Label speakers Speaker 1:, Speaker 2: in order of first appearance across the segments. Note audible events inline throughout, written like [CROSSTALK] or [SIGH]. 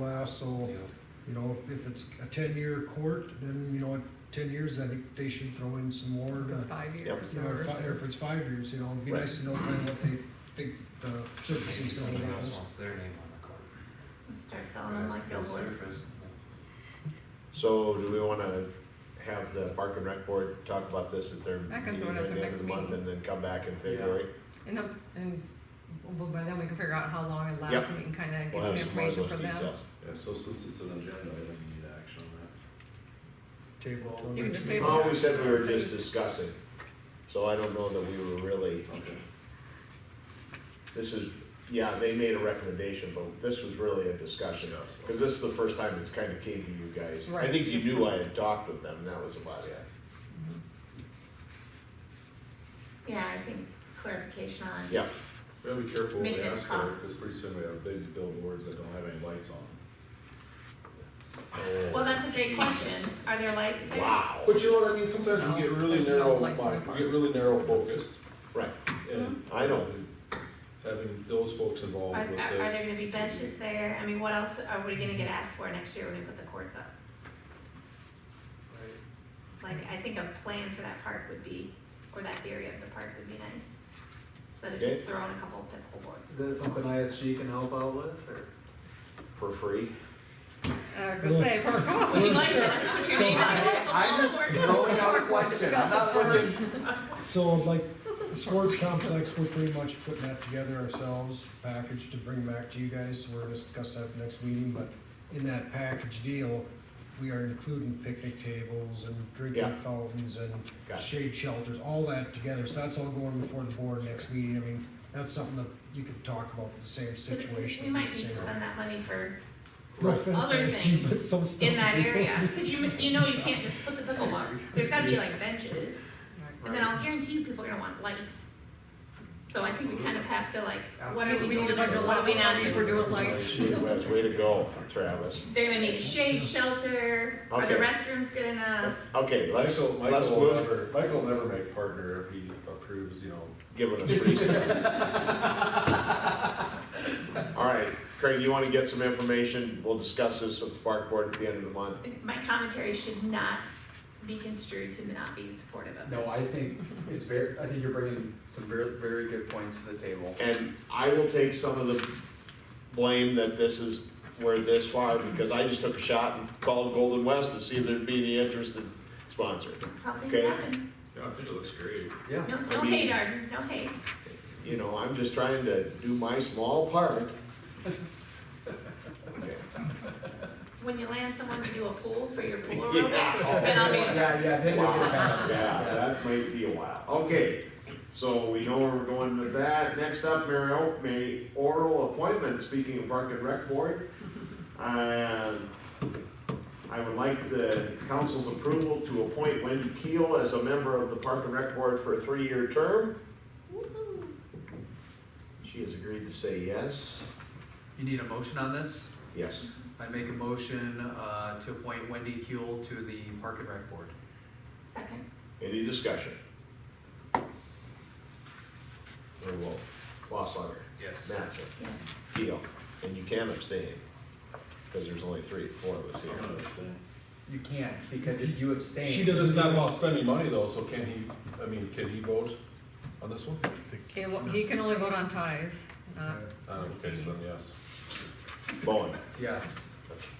Speaker 1: last, so, you know, if- if it's a ten-year court, then, you know, in ten years, I think they should throw in some more
Speaker 2: It's
Speaker 1: to,
Speaker 2: five years
Speaker 1: you know,
Speaker 2: or.
Speaker 1: if I- or if it's five years, you know, it'd be nice to know kind of what they think the
Speaker 3: Maybe
Speaker 1: sentencing's gonna
Speaker 3: somebody else
Speaker 1: be.
Speaker 3: wants their name on the card.
Speaker 4: Start selling them like billboards.
Speaker 5: So do we wanna have the park and rec board talk about this at their
Speaker 2: That comes
Speaker 5: meeting
Speaker 2: one
Speaker 5: at
Speaker 2: at
Speaker 5: the
Speaker 2: the
Speaker 5: end of
Speaker 2: next
Speaker 5: the month
Speaker 2: meeting.
Speaker 5: and then come back in February?
Speaker 2: And, the- and, well, by then we can figure out how long it
Speaker 5: Yep.
Speaker 2: lasts and we can kind of
Speaker 5: We'll
Speaker 2: get some
Speaker 5: have some more of
Speaker 2: information
Speaker 5: those
Speaker 2: from them.
Speaker 5: details.
Speaker 6: Yeah, so since it's an agenda, I think we need action on that.
Speaker 1: Table. till
Speaker 2: You can
Speaker 1: next
Speaker 2: just
Speaker 1: meeting.
Speaker 2: table
Speaker 5: Oh, we said we were just discussing, so I don't know that we were really,
Speaker 6: Okay.
Speaker 5: this is, yeah, they made a recommendation, but this was really a discussion. Cause this is the first time it's kinda came to you guys. I
Speaker 2: Right.
Speaker 5: think you knew I had talked with them, and that was about it.
Speaker 4: Yeah, I think clarification on.
Speaker 5: Yeah,
Speaker 6: We gotta be careful when we
Speaker 4: Maintenance
Speaker 6: ask for it,
Speaker 4: costs.
Speaker 6: because pretty soon we have big billboards that don't have any lights on them.
Speaker 4: Well, that's a great question. Are there lights there?
Speaker 5: wow,
Speaker 7: But you know what I mean, sometimes we get really
Speaker 2: There's no
Speaker 7: narrow,
Speaker 2: lights in the
Speaker 7: mind-
Speaker 2: park.
Speaker 7: we get really narrow focused,
Speaker 5: right,
Speaker 7: and.
Speaker 4: Mm-hmm.
Speaker 5: I know.
Speaker 7: Having those folks involved
Speaker 4: Are,
Speaker 7: with
Speaker 4: are are there
Speaker 7: this,
Speaker 4: gonna be benches there? I mean, what else are we gonna get asked for next year when we put the courts up? Like, I think a plan for that park would be, or that area of the park would be nice. Instead of just
Speaker 5: Okay.
Speaker 4: throwing a couple pickleball.
Speaker 8: Is that something ISG can help out with, or?
Speaker 5: for free. [LAUGHS]
Speaker 2: Uh, go say, for cost.
Speaker 4: Would you like to put your name on it?
Speaker 8: I'm just throwing out a question, I'm not looking.
Speaker 1: So like, the sports complex, we're pretty much putting that together ourselves, package to bring back to you guys, we're gonna discuss that at the next meeting, but in that package deal, we are including picnic tables and drinking
Speaker 5: Yeah.
Speaker 1: fountains and
Speaker 5: Gotcha.
Speaker 1: shade shelters, all that together, so that's all going before the board next meeting, I mean, that's something that you could talk about, the same situation.
Speaker 4: We might need to
Speaker 1: same-
Speaker 4: spend that money for,
Speaker 1: No offense,
Speaker 4: other
Speaker 1: ISG, but
Speaker 4: things
Speaker 1: some stuff
Speaker 4: in that
Speaker 1: we don't [LAUGHS]
Speaker 4: area,
Speaker 1: need.
Speaker 4: cause you, you know you can't just put the pickleball. There's gotta be like benches. And then I'll guarantee you people are gonna want lights. So I think we kind of have to like, what are
Speaker 2: Absolutely.
Speaker 4: we
Speaker 2: We need
Speaker 4: going
Speaker 2: a bunch
Speaker 4: to,
Speaker 2: of
Speaker 4: what are we now
Speaker 2: lights.
Speaker 4: need?
Speaker 2: for doing lights.
Speaker 5: That's way to go, Travis.
Speaker 4: They're gonna need a shade shelter, are the
Speaker 5: Okay.
Speaker 4: restrooms good
Speaker 2: Uh,
Speaker 4: enough?
Speaker 5: Okay, let's,
Speaker 6: Michael,
Speaker 5: let's
Speaker 6: Michael will
Speaker 5: move,
Speaker 6: never, Michael will never make partner if he approves, you know,
Speaker 5: giving us reason. All right, Craig, you wanna get some information, we'll discuss this with the park board at the end of the month.
Speaker 4: I think My commentary should not be construed to not being supportive of this.
Speaker 8: No, I think it's very, I think you're bringing some very, very good points to the table.
Speaker 5: And I will take some of the blame that this is, where this far, because I just took a shot and called Golden West to see if there'd be any interest in sponsoring.
Speaker 4: That's how things
Speaker 5: Okay.
Speaker 4: happen.
Speaker 6: yeah, I think it looks great.
Speaker 8: Yeah,
Speaker 4: No, no hate, Arden, no hate.
Speaker 5: You know, I'm just trying to do my small part. Okay.
Speaker 4: When you land someone to do a pool for your pool
Speaker 5: Yeah.
Speaker 4: aerobics, then I'll be.
Speaker 8: [LAUGHS] yeah, yeah, then you're
Speaker 5: Wow,
Speaker 8: good.
Speaker 5: yeah, that might be a while. Okay, so we know where we're going with that. Next up, Mario, may oral appointment, speaking of Park and Rec Board. Um, I would like the council's approval to appoint Wendy Keel as a member of the Park and Rec Board for a three-year term. She has agreed to say yes.
Speaker 8: You need a motion on this?
Speaker 5: Yes,
Speaker 8: I make a motion, uh, to appoint Wendy Kuehl to the Park and Rec Board.
Speaker 4: Second,
Speaker 5: any discussion? Or Wolf, Loslawler,
Speaker 7: Yes.
Speaker 5: Mattson.
Speaker 4: yes.
Speaker 5: Deal, and you can abstain, because there's only three, four of us here.
Speaker 6: I'm gonna abstain.
Speaker 8: You can't, because if you abstain. Uh,
Speaker 1: She
Speaker 7: This
Speaker 1: doesn't
Speaker 7: is not
Speaker 1: even-
Speaker 7: about spending money though, so can he, I mean, can he vote on this one?
Speaker 2: Okay, well, he can only vote on ties, not.
Speaker 7: Uh, okay, so then yes.
Speaker 5: Bowen.
Speaker 8: Yes.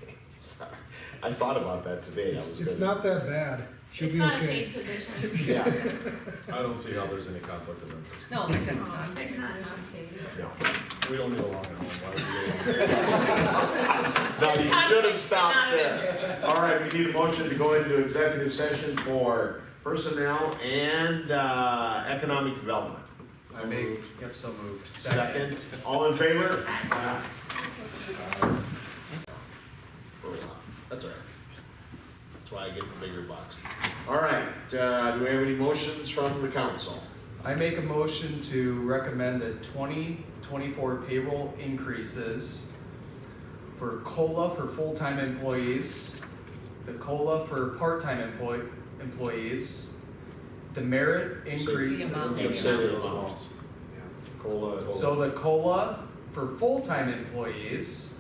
Speaker 5: Okay, [LAUGHS] sorry. I thought about that today, I was
Speaker 1: It's, it's
Speaker 5: gonna-
Speaker 1: not that bad, she'll
Speaker 4: It's
Speaker 1: be
Speaker 4: not a
Speaker 1: okay.
Speaker 4: paid
Speaker 5: [LAUGHS]
Speaker 4: position.
Speaker 5: Yeah,
Speaker 7: I don't see how there's any conflict of interest.
Speaker 2: No, like I said, it's not.
Speaker 4: There's not enough.
Speaker 5: no.
Speaker 7: We don't need a long one, why would
Speaker 5: No,
Speaker 7: we?
Speaker 5: you should have stopped
Speaker 4: Not of
Speaker 5: there. All right, we need a motion to go into executive session for personnel and, uh, economic development.
Speaker 8: I make, yep, so moved.
Speaker 5: Second, all in favor? Aye. For a while. That's all right. That's why I get the bigger box. All right, uh, do we have any motions from the council?
Speaker 8: I make a motion to recommend the 2024 payroll increases for COLA for full-time employees, the COLA for part-time employ, employees, the merit increase.
Speaker 2: The amount.
Speaker 5: Yeah, say the amount. Cola.
Speaker 8: So the COLA for full-time employees,